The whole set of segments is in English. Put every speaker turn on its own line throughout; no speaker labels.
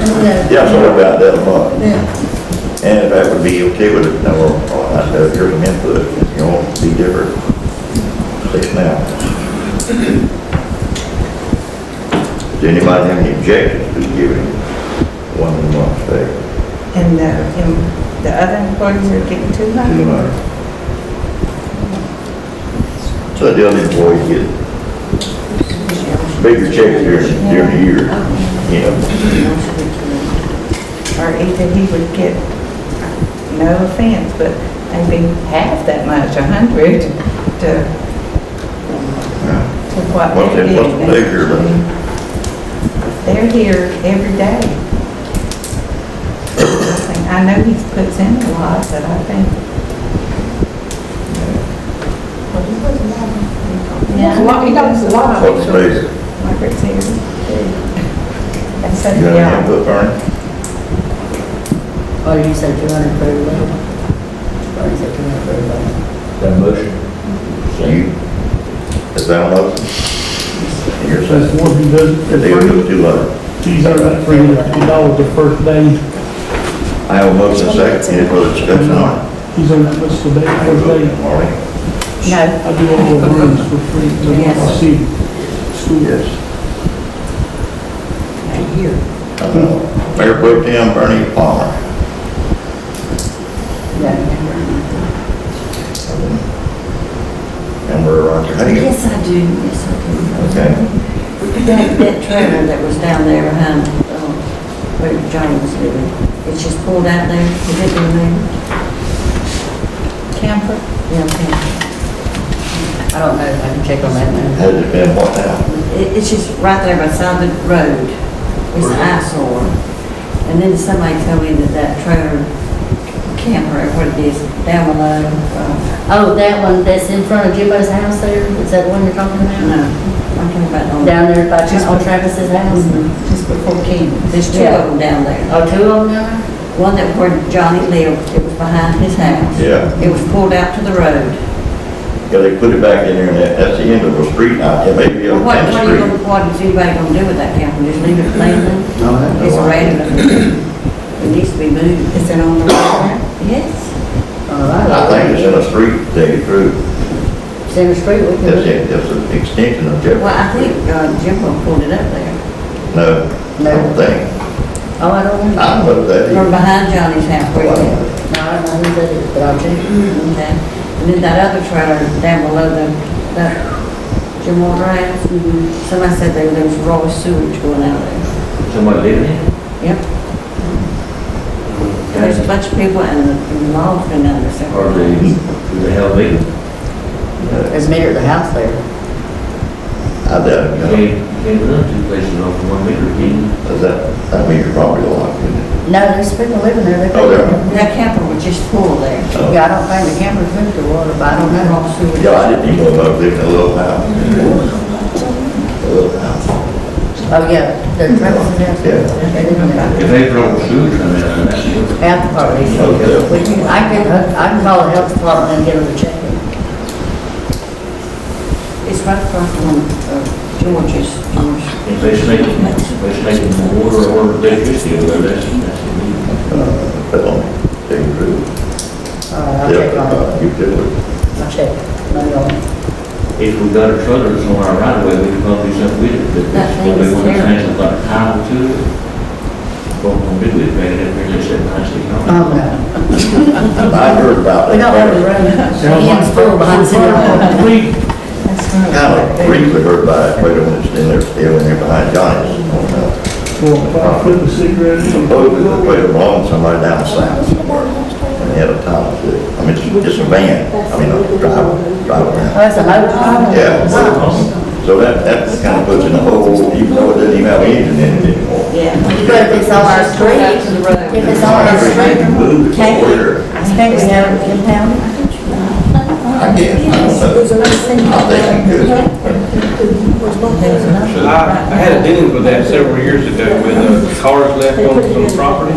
Yeah, so about that much.
Yeah,
And if that would be okay with it, now, well, I'd have your input, you know, be different. Say it now. Does anybody have any objections to giving one month pay?
and the, and the other employees are getting too
two
much.
months. So the other employees get bigger checks during, during the year, you know.
Or either he would get, no offense, but maybe half that much, a hundred, to, to what
What's
they're
that- what's
getting.
the figure, but-
They're here every day. I think- I know he puts in a lot, but I think.
It's a lot, he does a lot of
What's the
it.
figure?
Margaret's here. And so,
You got any
yeah,
input, Ernie?
Or Oh, you said two hundred per load? Or you said two hundred per load?
That motion?
You, is that a motion? And You're
That's
saying,
one who does,
that they would do two hundred.
he's earning three hundred dollars the first day,
I have a motion second, any further discussion on it?
uh, he's earning that much today, first day.
Marlene?
no,
I do all the runs for free, so I see school.
Yes.
A year.
Uh, Mayor Pro Tem Bernie Palmer. And we're on to Honey.
Yes, I do, yes, I
Okay,
do. That, that trailer that was down there behind, um, where John was living, it's just pulled out there, is it in there?
camper.
Yeah, okay. I don't know, I can check on that now.
has it been what now?
It, it's just right there beside the road, it's an eyesore. And then somebody told me that that trailer, camper, what it is, down below, uh,
Oh, that one that's in front of Jimbo's house there, is that the one you're talking
No,
about?
I'm talking about on.
Down there by Tra- on Travis's house?
Mm-hmm.
Just before King. There's two
Yeah.
of them down there.
Oh, two of them down there?
One that where Johnny lived, it was behind his house.
Yeah.
It was pulled out to the road.
Yeah, they put it back in there and that, that's the end of the street now, it may be
Well,
on
What,
Tenth
what are you
Street.
gonna, what is anybody gonna do with that camper? Just leave it laying?
No, I
It's random. It needs to be moved.
Is it on the water?
Yes.
Oh,
I think it's in a street they through,
Center Street, we can
that's
look.
it, that's an extension of
Well,
Jefferson.
I think, uh, Jimbo pulled it up there.
No, I don't think,
Oh, I don't know.
I don't know if that.
From
is-
behind Johnny's house where he lived.
No, I don't know who that is, but I'll check.
Okay, and then that other trailer down below the, that Jim Moore House, somebody said there there was raw sewage going out there.
Somebody living in?
Yep, there's a
Okay.
bunch of people and involved in that, so.
Or they, do they have legal?
There's a meter at the house there.
I doubt it,
You
no.
can't, you can't run two places off of one meter, can you?
Is that, that means you're probably locked in it.
No, there's people living there. They-
Oh, there.
That camper was just full there.
Oh.
Yeah, I don't think the camera's moved to water, but I don't know.
Raw sewage.
Yeah, I didn't even know I was living in a little house. A little house.
Oh, yeah, the Travis's house.
Yeah.
They're living there.
If they throw sewage on that, then that's it.
Half the party.
Okay.
We can- I can, I can call the health department and get them to check it.
It's right across from, uh, George's, George.
If they snake, if they snake in water or electricity, well, that's, that's.
That's on, they grew.
Uh, I'll check on it.
Yeah, you did it.
I'll check. Maybe I'll-
If we got a trailer that's on our right of way, we can probably do something with it, but
That
that's
thing
what they
is
want to
terrible.
change, like a title to it. What we do is make it, up here and they said nicely, no?
Oh, no.
I heard about that.
We don't have a room. Ian's full behind city hall.
Complete
That's right.
Kind of briefly heard about it, right when it's in there, still in there behind Johnny's. Oh, no.
for a five foot of cigarettes.
Supposedly they played along somewhere down south somewhere, and they had a title to it. I mean, it's just a van, I mean, a driver, driver van.
Oh, that's a motor.
Yeah. So that, that kind of puts in a hole, even though it doesn't even have an engine in it anymore.
Yeah.
But if it's on our street,
Out to the road.
if it's on our
You
street,
move it
Can't-
forward,
can't we have it impounded?
I guess, I don't know. I think you could.
I, I had a dealing with that several years ago with uh, cars left on some property.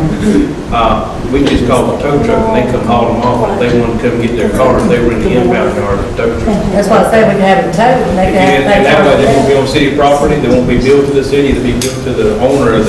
Uh, we just called the tow truck and they come haul them off. If they wanted to come get their car, they were in the inbound yard of the tow truck.
That's why I said we can have it towed, and they
And
can have it.
and that way they won't
paid
be
for.
on city property, they won't be billed to the city, they'll be billed to the owner of the